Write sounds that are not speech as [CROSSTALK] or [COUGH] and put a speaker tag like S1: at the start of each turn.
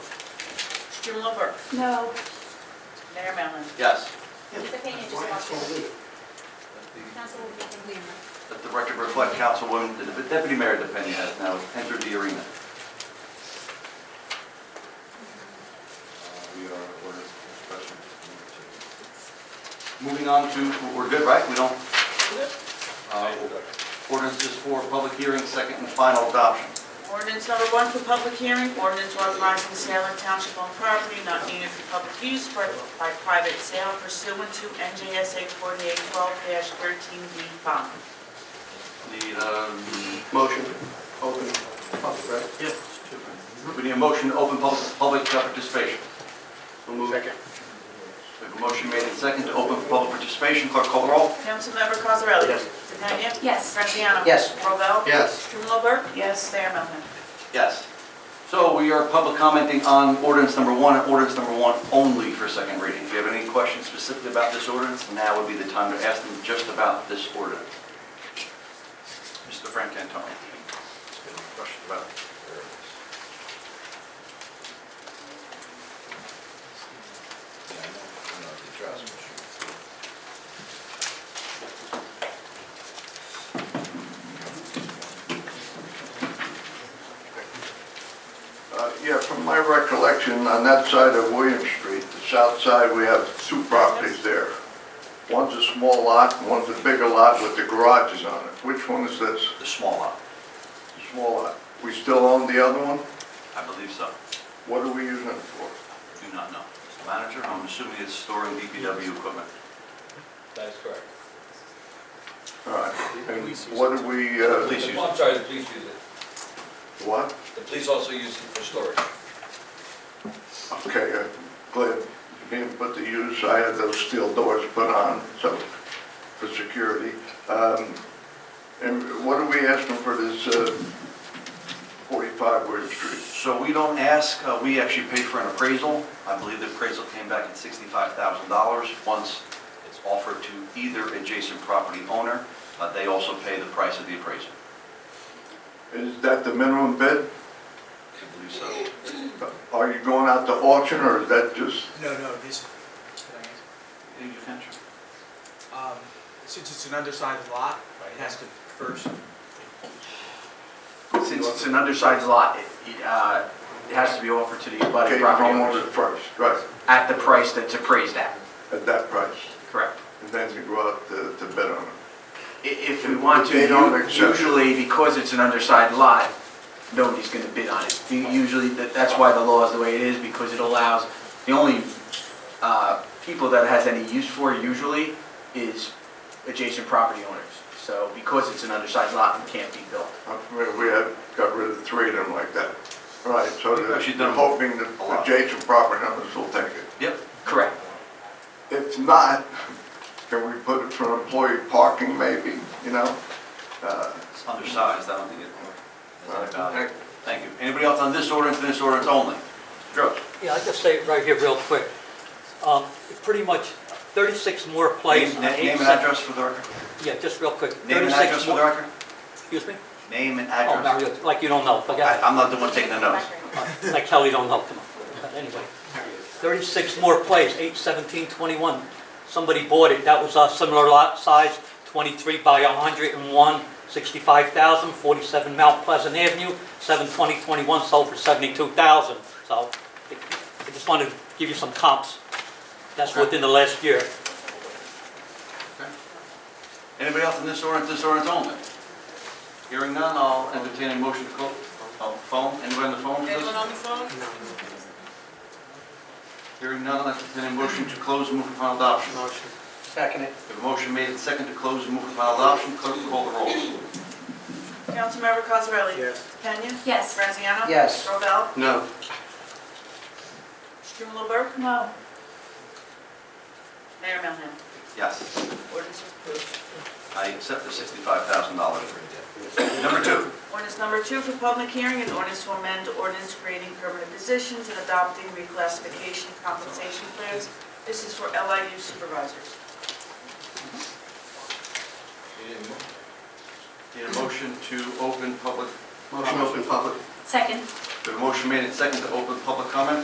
S1: Jim Lovett,
S2: No,
S1: Mayor Mellon.
S3: Yes,
S4: Mr. Pena just walked in. Councilwoman Vivian Leon.
S3: let the record reflect Councilwoman, the Deputy Mayor DePena has now entered the arena.
S5: We are ordered special meeting.
S3: Moving on to, we're good, right? We don't, uh, ordinances for public hearing, second and final adoption.
S1: Ordinance number one for public hearing, ordinance authorizing sale of township-owned property not needed for public use for- by private sale pursuant to NJSA 4812-13B5.
S3: Need a motion, open public, right? Yes. We need a motion to open public, public participation. We'll move. Second. We have a motion made and second to open for public participation. Clerk call the roll.
S1: Councilmember Cosarelli? Yes. DePena?
S2: yes.
S1: Graziano?
S3: Yes.
S1: Robel?
S3: Yes.
S1: Jim Lovett? Yes. Mayor Mellon.
S3: Yes. So we are public commenting on ordinance number one and ordinance number one only for second reading. If you have any questions specifically about this ordinance, now would be the time to ask them just about this ordinance. Mr. Frank Antoni. Questions about it?
S6: Uh, Yeah, from my recollection, on that side of William Street, the south side, we have two properties there. One's a small lot, and one's a bigger lot with the garages on it. Which one is this?
S3: The small lot,
S6: The small lot. We still own the other one?
S3: I believe so.
S6: What are we using it for?
S3: Do not know. Mr. Manager, I'm assuming it's storing DPW equipment.
S7: That is correct.
S6: All right, and what do we, uh,
S3: Please use
S7: Well, I'm sorry, the police use it.
S6: what?
S7: The police also use it for storage.
S6: Okay, uh, glad you didn't put the use, I had those steel doors put on, so, for security. Um, And what are we asking for this uh, 45 Word Street?
S3: So we don't ask, uh, we actually pay for an appraisal. I believe the appraisal came back at $65,000 once it's offered to either adjacent property owner. uh, They also pay the price of the appraisal.
S6: Is that the minimum
S3: I
S6: bid?
S3: believe so.
S6: Are you going out to auction, or is that just,
S8: No, no, this, can I answer? Um, since it's an undersized lot, it has to first,
S9: Since it's an undersized lot, it, uh, it has to be offered to the
S6: okay,
S9: abutting
S6: the
S9: property owners
S6: homeowner first, right,
S9: at the price that's appraised at,
S6: at that price?
S9: correct?
S6: And then you go out to to bid on it?
S9: I- If we want to,
S6: They don't
S9: u-
S6: accept.
S9: usually because it's an undersized lot, nobody's gonna bid on it. U- Usually, that- that's why the law is the way it is, because it allows, the only uh, people that it has any use for usually is adjacent property owners. So because it's an undersized lot, it can't be built.
S6: I'm familiar, We had, got rid of three of them like that. Right, so
S3: We've actually
S6: they're
S3: done
S6: hoping
S3: a lot.
S6: that adjacent property owners will take it.
S3: Yep,
S9: Correct.
S6: If not, [LAUGHS] can we put it for employee parking maybe, you know? Uh,
S3: it's undersized, I don't think it, it's not
S6: uh,
S3: valuable. Thank you. Anybody else on this ordinance, and this ordinance only? Drew?
S10: Yeah, I'll just say it right here real quick. Um, Pretty much 36 Moore Place.
S3: Name
S10: on
S3: na- name and
S10: 87
S3: address for the record.
S10: Yeah, just real quick.
S3: Name and
S10: 36
S3: address for the
S10: Moore-
S3: record.
S10: Excuse me?
S3: Name and
S10: Oh,
S3: address.
S10: Mario, like you don't know,
S3: I-
S10: forget
S3: I'm not the one taking the notes.
S10: it. Like hell you don't know, come on. But Anyway, 36 Moore Place, 81721. Somebody bought it, that was a similar lot size, 23 by 101, 65,000, 47 Mount Pleasant Avenue, 72021, sold for 72,000. So I- I just wanted to give you some comps. That's within the last year.
S3: Anybody else on this ordinance, this ordinance only? Hearing none, I'll entertain a motion to close. Oh, phone, anybody on the phone? please?
S1: Anyone on the phone?
S3: Hearing none, I'll entertain a motion to close and move for final adoption.
S8: motion.
S9: Second it.
S3: The motion made and second to close and move for final adoption, clerk will call the roll.
S1: Councilmember Cosarelli?
S8: Yes.
S1: DePena?
S2: Yes.
S1: Graziano?
S9: Yes.
S1: Robel?
S3: No.
S1: Jim Lovett?
S2: No.
S1: Mayor Mellon.
S3: Yes,
S1: Ordinance is approved.
S3: I accept the sixty-five thousand dollars. Number two,
S1: Ordinance number two for public hearing, an ordinance to amend ordinance creating permanent positions and adopting reclassification compensation plans. This is for LIU supervisors.
S3: need a motion to open public.
S2: Second.
S3: The motion made and second to open public comment.